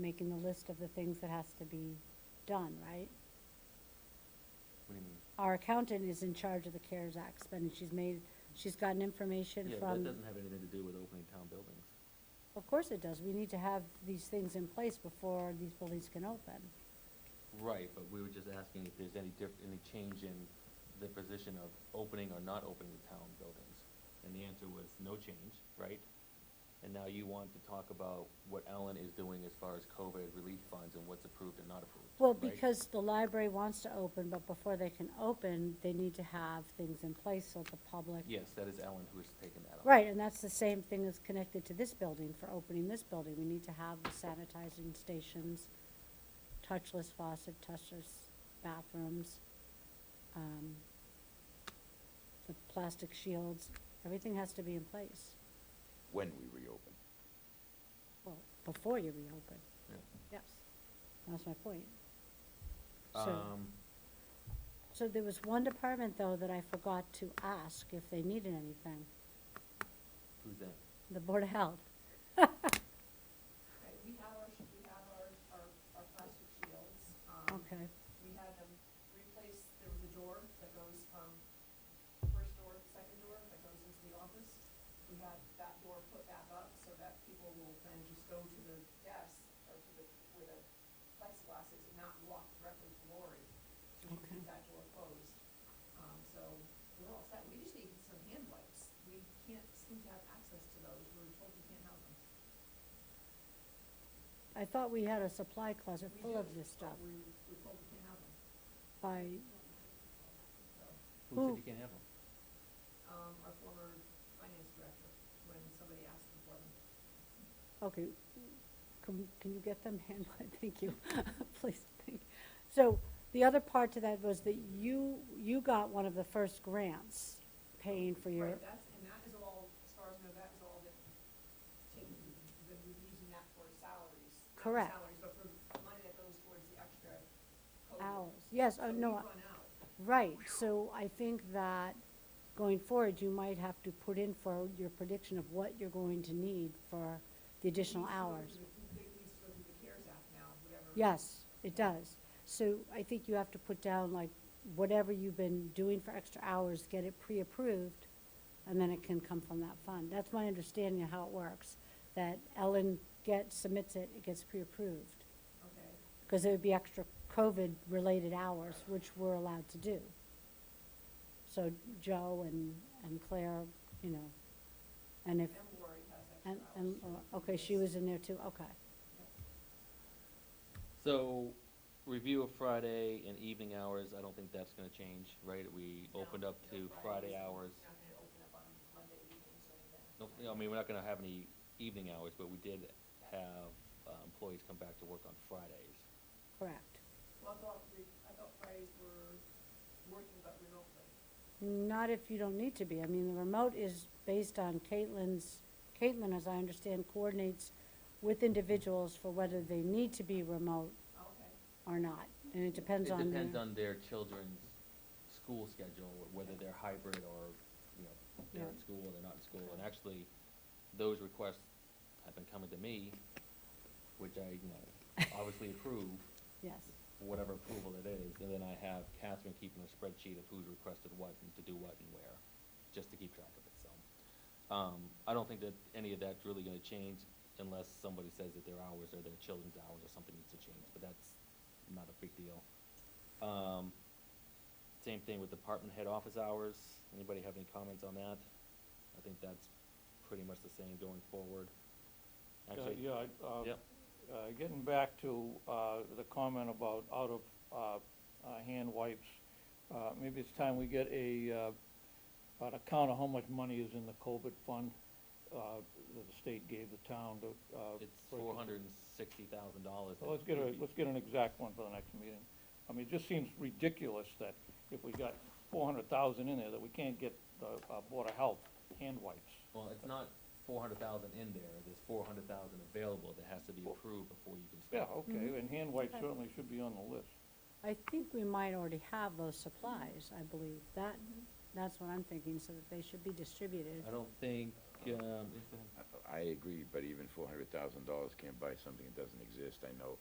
making the list of the things that has to be done, right? What do you mean? Our accountant is in charge of the CARES Act spending. She's made, she's gotten information Yeah, that from, doesn't have anything to do with opening town buildings. of course it does. We need to have these things in place before these buildings can open. Right, but we were just asking if there's any diff, any change in the position of opening or not opening the town buildings. And the answer was no change, right? And now you want to talk about what Ellen is doing as far as COVID relief funds and what's approved and not approved, Well, right? because the library wants to open, but before they can open, they need to have things in place so the public. Yes, that is Ellen who is taking that on. Right, and that's the same thing that's connected to this building, for opening this building. We need to have the sanitizing stations, touchless faucet, touchless bathrooms, um, the plastic shields, everything has to be in place, when we reopen. well, before you reopen. Yeah. Yes. That's my point. So- Um, So there was one department, though, that I forgot to ask if they needed anything, who's that? the Board of Health. Right, we have our, sh- we have our, our, our plastic shields. Um, Okay, We had them replace, there was a door that goes from first door to second door that goes into the office. We had that door put back up so that people will then just go to the desk or to the, where the plexiglass is and not walk directly to Lori. So we Okay. keep that door closed. Um, so we're all set. We just need some hand wipes. We can't seem to have access to those. We We're told we can't have them. I thought we had a supply closet We full do, of this but stuff we- we're told we can't have them. by, Who Who? said you can't have them? Um, our former finance director, when somebody asked him for them. okay, can, can you get them hand, thank you, please, thank. So, the other part to that was that you, you got one of the first grants paying for your, Right, that's, and that is all, as far as I know, that is all that, taken, that we're using that for salaries. not Correct. Salaries, but for money that goes towards the extra COVID. Hours. Yes, oh, So no, we I- run out. right, so I think that going forward, you might have to put in for your prediction of what you're going to need for the additional hours. It needs to go through the CARES Act now, whatever. Yes, it does. So I think you have to put down, like, whatever you've been doing for extra hours, get it pre-approved, and then it can come from that fund. That's my understanding of how it works, that Ellen gets, submits it, it gets pre-approved. Okay, Because it would be extra COVID-related hours, which we're allowed to do. So Joe and, and Claire, you know, and if, and Lori has extra and, hours. and, okay, she was in there too, okay. So, review of Friday and evening hours, I don't think that's gonna change, right? We No, opened up no, to Friday Friday's hours. Not gonna open up on Monday evenings or anything. No, you know, I mean, we're not gonna have any evening hours, but we did have uh, employees come back to work on Fridays. Correct. Well, I thought, we- I thought Fridays were working but Oh, remotely. Not if you don't need to be. I mean, the remote is based on Caitlin's, Caitlin, as I understand, coordinates with individuals for whether they need to be remote Okay. or not. And it depends on It depends their, on their children's school schedule, wh- whether they're hybrid or, you know, they're in Yeah. school or they're not in school. And actually, those requests have been coming to me, which I, you know, obviously approve. yes. whatever approval it is, and then I have Catherine keeping a spreadsheet of who's requested what and to do what and where, just to keep track of it, so. Um, I don't think that any of that's really gonna change unless somebody says that their hours or their children's hours or something needs to change, but that's not a big deal. Um, same thing with department head office hours, anybody have any comments on that? I think that's pretty much the same going forward. Uh, Actually, Yeah, I- uh, Yep. uh, getting back to uh, the comment about out-of-hand wipes, uh, maybe it's time we get a, uh, an account of how much money is in the COVID fund uh, that the state gave the town to. uh, It's break it. four hundred and sixty thousand dollars. Well, Let's get a, let's get an exact one for the next meeting. I mean, it just seems ridiculous that if we got four hundred thousand in there, that we can't get the uh, Board of Health hand wipes. Well, it's not four hundred thousand in there, there's four hundred thousand available that has to be approved before you can Yeah, spend. okay, and hand wipes Okay. certainly should be on the list. I think we might already have those supplies, I believe. That, that's what I'm thinking, so that they should be distributed. I don't think um, if the- I agree, but even four hundred thousand dollars can't buy something that doesn't exist, I know.